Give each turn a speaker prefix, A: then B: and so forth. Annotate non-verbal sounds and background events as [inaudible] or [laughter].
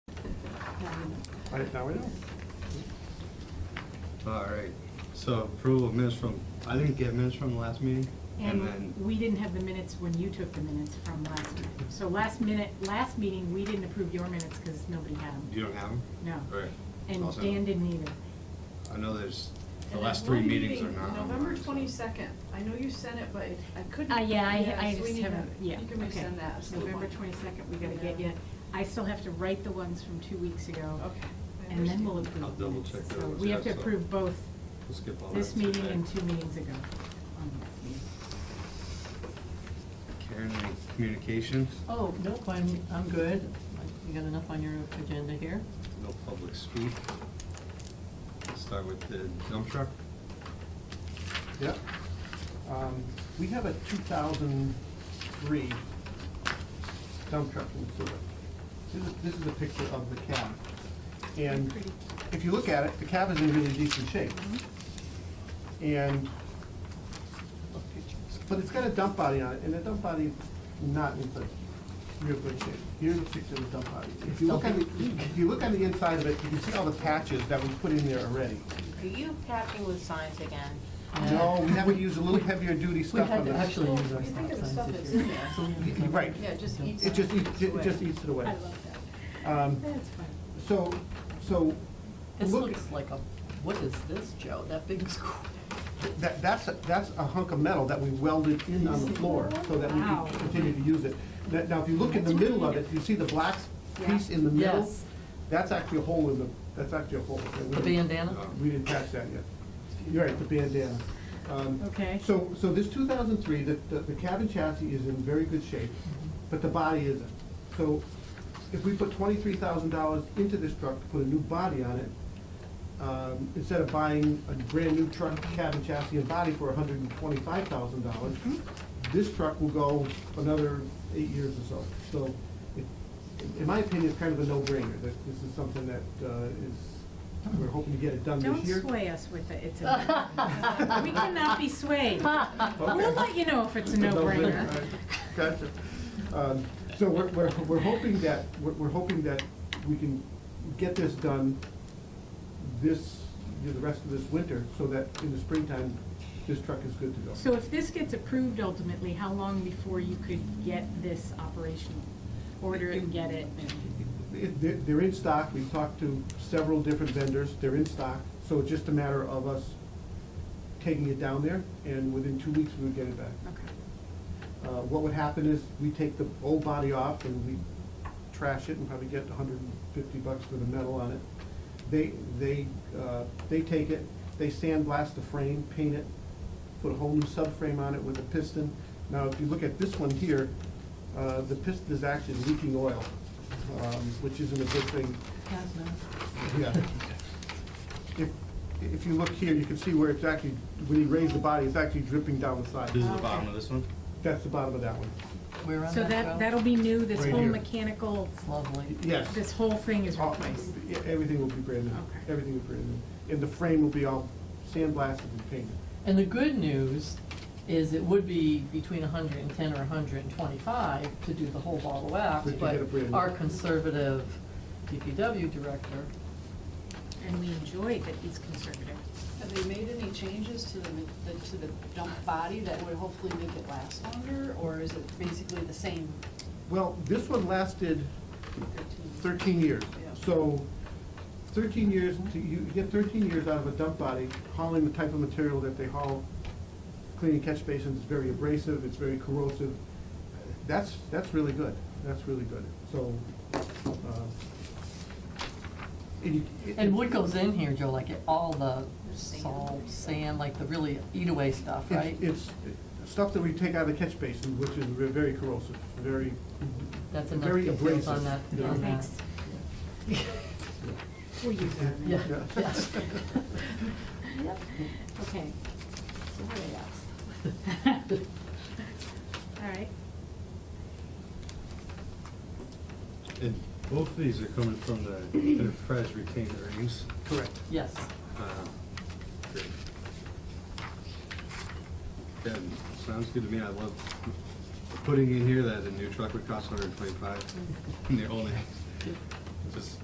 A: Right, now we know.
B: All right, so approval of minutes from, I didn't get minutes from the last meeting, and
C: And
B: then,
C: we didn't have the minutes when you took the minutes from last minute. So last minute, last meeting, we didn't approve your minutes because nobody had them.
B: you don't have them?
C: No.
B: Right.
C: And
B: Also,
C: Dan didn't e- either.
B: I know there's, the
D: And
B: last
D: that
B: three
D: one
B: meetings are
D: meeting,
B: not online.
D: November
B: so-
D: twenty-second, I know you sent it, but I couldn't.
C: Uh, yeah, I, I
D: yes, we
C: just
D: need
C: haven't,
D: that.
C: yeah.
D: You can
C: okay.
D: resend that. so
C: November
D: why-
C: twenty-second, we gotta get
D: Yeah.
C: you. I still have to write the ones from two weeks ago.
D: Okay. I
C: And then
D: understand.
C: we'll approve.
B: I'll
C: the
B: double
C: minutes.
B: check that
C: So
B: was
C: we have to
B: that, so-
C: approve both
B: We'll skip all that.
C: this meeting
B: today.
C: and two meetings ago. on the last meeting.
B: Karen, any communications?
E: Oh, nope, I'm, I'm good. You got enough on your agenda here?
B: No public speak. Let's Start with the dump truck.
A: Yep. Um, We have a 2003 dump truck in Seward. This is, this is a picture of the cab. And if you look at it, the cab is in really decent shape. And, but it's got a dump body on it, and the dump body is not in such real good shape. Here's a picture of the dump body. If you look on the, if you look on the inside of it, you can see all the patches that we put in there already.
F: Are you packing with signs again?
A: No, we haven't used a little heavier duty
E: We
A: stuff
E: had
A: on
E: to
A: this.
E: actually
D: Well,
E: use our
D: you
E: stop
D: think of the
E: signs
D: stuff
E: this
D: that's
E: year.
D: in there.
E: So we-
A: Y- [laughs] Right.
D: Yeah, just
E: It
D: eats.
A: It just eats, it
D: away.
A: just eats it away.
C: I love that.
A: Um,
C: That's fun.
A: So, so,
E: This
A: look,
E: looks like a, what is this, Joe? That big [laughs] square?
A: that, that's, a- that's a hunk of metal that we welded in on the floor so that we
C: Wow.
A: can continue to use it. That- Now, if you look in the middle of it, you see the black piece in the middle?
E: Yes.
A: That's actually a hole in the, that's actually a hole. Okay, we
E: The
A: didn't-
E: bandana?
A: We didn't catch that yet. You're right, the bandana. Um,
C: Okay.
A: So, so this two thousand three, the, the the cabin chassis is in very good shape, but the body isn't. So if we put twenty-three thousand dollars into this truck to put a new body on it, um, instead of buying a brand-new truck, cabin chassis and body for hundred and twenty-five thousand dollars, this truck will go another eight years or so. So it, in my opinion, it's kind of a no-brainer, that this is something that, uh, is, we're hoping to get it done this
C: Don't
A: year.
C: sway us with it, it's a, we cannot be swayed. We'll let you know if
A: [laughs]
C: it's a
A: It's a
C: no-brainer.
A: right? Gotcha. Um, So we're, we're, we're hoping that, we're, we're hoping that we can get this done this, you know, the rest of this winter, so that in the springtime, this truck is good to go.
C: So if this gets approved ultimately, how long before you could get this operational? Order it and get it?
A: It- They're, they're in stock, we've talked to several different vendors, they're in stock, so it's just a matter of us taking it down there, and within two weeks, we would get it back.
C: Okay.
A: Uh, What would happen is, we take the old body off and we trash it and probably get hundred and fifty bucks for the metal on it. They, they, uh, they take it, they sandblast the frame, paint it, put a whole new subframe on it with a piston. Now, if you look at this one here, uh, the piston is actually leaking oil, um, which isn't a good thing.
E: Has no.
A: Yeah. If, if you look here, you can see where it's actually, when he raised the body, it's actually dripping down the
B: This is
C: Oh,
A: side.
B: the bottom of this one.
A: That's the bottom of that one.
E: Where on
C: So
E: that
C: that,
E: go?
C: that'll be new, this
A: Right
C: whole
A: here.
C: mechanical,
E: It's lovely.
A: Yes. Oh.
C: this whole thing is
A: All-
C: replaced.
A: yeah, Everything will be brand new.
C: Okay.
A: Everything will be brand new. And the frame will be all sandblasted and painted.
E: And the good news is it would be between hundred and ten or hundred and twenty-five to do the whole ball of wax,
A: But you
E: but
A: get a brand new-
E: our conservative DPW director
C: And we enjoy that he's conservative.
D: Have they made any changes to the, the- to the dump body that would hopefully make it last longer, or is it basically the same?
A: Well, this one lasted
D: thirteen?
A: thirteen years.
D: Yeah.
A: So thirteen years, to- you get thirteen years out of a dump body hauling the type of material that they haul. Cleaning catch basins is very abrasive, it's very corrosive. That's, that's really good. That's really good. So, uh, and you. it-
E: And what goes in here, Joe, like it- all the
D: The sand.
E: salt, sand, like the really eat-away stuff,
A: It's-
E: right?
A: It's stuff that we take out of the catch basin, which is ve- very corrosive, very,
E: That's enough
A: very
E: to get
A: abrasive.
E: bills on that,
A: Yeah.
E: on that.
C: Thanks. We'll use that.
E: Yeah,
A: Yeah. [laughs]
E: yes.
C: [laughs]
E: [laughs]
C: Okay.
E: So what else?
A: [laughs]
C: [laughs] All right.
B: And both of these are coming from the enterprise retained earnings.
A: Correct.
E: [laughs] Yes,
B: Uh, great. That sounds good to me. I love putting in here that a new truck would cost hundred and twenty-five. And they're only, just